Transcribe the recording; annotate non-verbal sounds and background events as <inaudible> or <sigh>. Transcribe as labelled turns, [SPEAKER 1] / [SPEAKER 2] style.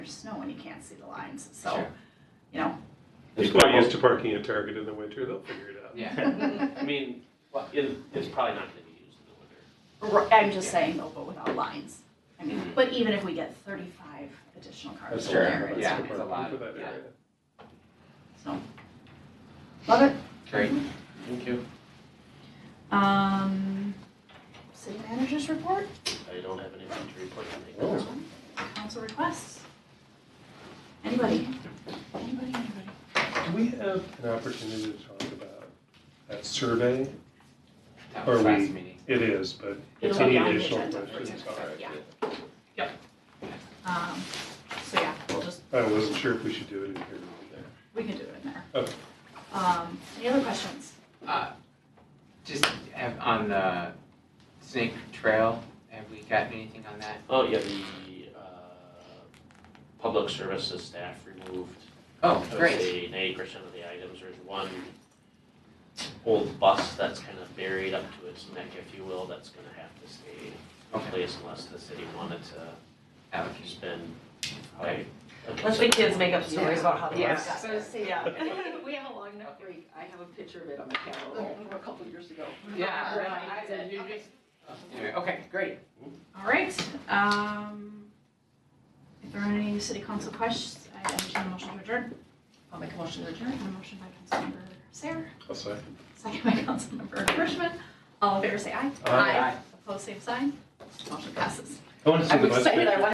[SPEAKER 1] there's snow and you can't see the lines, so,
[SPEAKER 2] Sure.
[SPEAKER 1] you
[SPEAKER 2] <laughs>
[SPEAKER 1] know.
[SPEAKER 2] There's
[SPEAKER 3] People are
[SPEAKER 2] no-
[SPEAKER 3] used to parking at Target in the winter, they'll figure it out.
[SPEAKER 2] Yeah,
[SPEAKER 1] <laughs>
[SPEAKER 4] I mean, it, it's probably not gonna be used in the winter.
[SPEAKER 1] R- I'm just saying though, but without lines. I
[SPEAKER 2] Mm-hmm.
[SPEAKER 1] mean, but even if we get thirty-five additional cars
[SPEAKER 3] That's
[SPEAKER 1] in
[SPEAKER 2] Sure,
[SPEAKER 1] there, it's
[SPEAKER 2] yeah.
[SPEAKER 1] fine.
[SPEAKER 2] it's a lot,
[SPEAKER 3] For that
[SPEAKER 2] yeah.
[SPEAKER 3] area.
[SPEAKER 1] so. Love it.
[SPEAKER 2] great, thank you.
[SPEAKER 1] Um, city managers report,
[SPEAKER 4] I don't have anything to report to
[SPEAKER 3] Oh.
[SPEAKER 4] make.
[SPEAKER 1] council requests. Anybody? Anybody, anybody?
[SPEAKER 3] Do we have an opportunity to talk about that survey?
[SPEAKER 2] That
[SPEAKER 3] Or
[SPEAKER 2] was last
[SPEAKER 3] we-
[SPEAKER 2] meeting.
[SPEAKER 3] It is, but if
[SPEAKER 1] It'll be
[SPEAKER 3] any
[SPEAKER 1] on the
[SPEAKER 3] additional
[SPEAKER 1] agenda for
[SPEAKER 3] questions, all
[SPEAKER 1] tomorrow,
[SPEAKER 3] right.
[SPEAKER 1] yeah.
[SPEAKER 3] yeah.
[SPEAKER 1] Um, so yeah, we'll just,
[SPEAKER 3] I wasn't sure if we should do it in here or
[SPEAKER 1] we can do it in there.
[SPEAKER 3] Okay.
[SPEAKER 1] Um, any other questions?
[SPEAKER 2] Uh, Just have, on the Snake Trail, have we gotten anything on that?
[SPEAKER 4] Oh, yeah, the, uh, public services staff removed,
[SPEAKER 2] Oh,
[SPEAKER 4] I would
[SPEAKER 2] great,
[SPEAKER 4] say ninety percent of the items, there's one old bus that's kind of buried up to its neck, if you will, that's gonna have to stay in
[SPEAKER 2] Okay.
[SPEAKER 4] place unless the city wanted to
[SPEAKER 2] allocation.
[SPEAKER 4] spend, like. a
[SPEAKER 5] Let the kids
[SPEAKER 4] considerable-
[SPEAKER 5] make up stories about how they
[SPEAKER 6] Yeah,
[SPEAKER 5] got
[SPEAKER 6] so
[SPEAKER 5] there.
[SPEAKER 6] say, yeah,
[SPEAKER 5] <laughs>
[SPEAKER 6] we have a long enough break, I have a picture of it on my calendar from a couple years ago.
[SPEAKER 2] Yeah.
[SPEAKER 6] Right, I said, okay.
[SPEAKER 2] Anyway, okay, great.
[SPEAKER 1] All right, um, if there are any city council questions, I entertain a motion to adjourn.
[SPEAKER 6] I'll make a motion to adjourn.
[SPEAKER 1] A motion by Councilmember Sarah,
[SPEAKER 3] I'll say.
[SPEAKER 1] second by Councilmember Frischman. All in favor, say aye.
[SPEAKER 3] Aye.
[SPEAKER 1] Opposed, same sign. Motion passes.
[SPEAKER 3] I want to see the
[SPEAKER 6] I'm
[SPEAKER 3] bus.
[SPEAKER 6] excited, I
[SPEAKER 3] picture.
[SPEAKER 6] want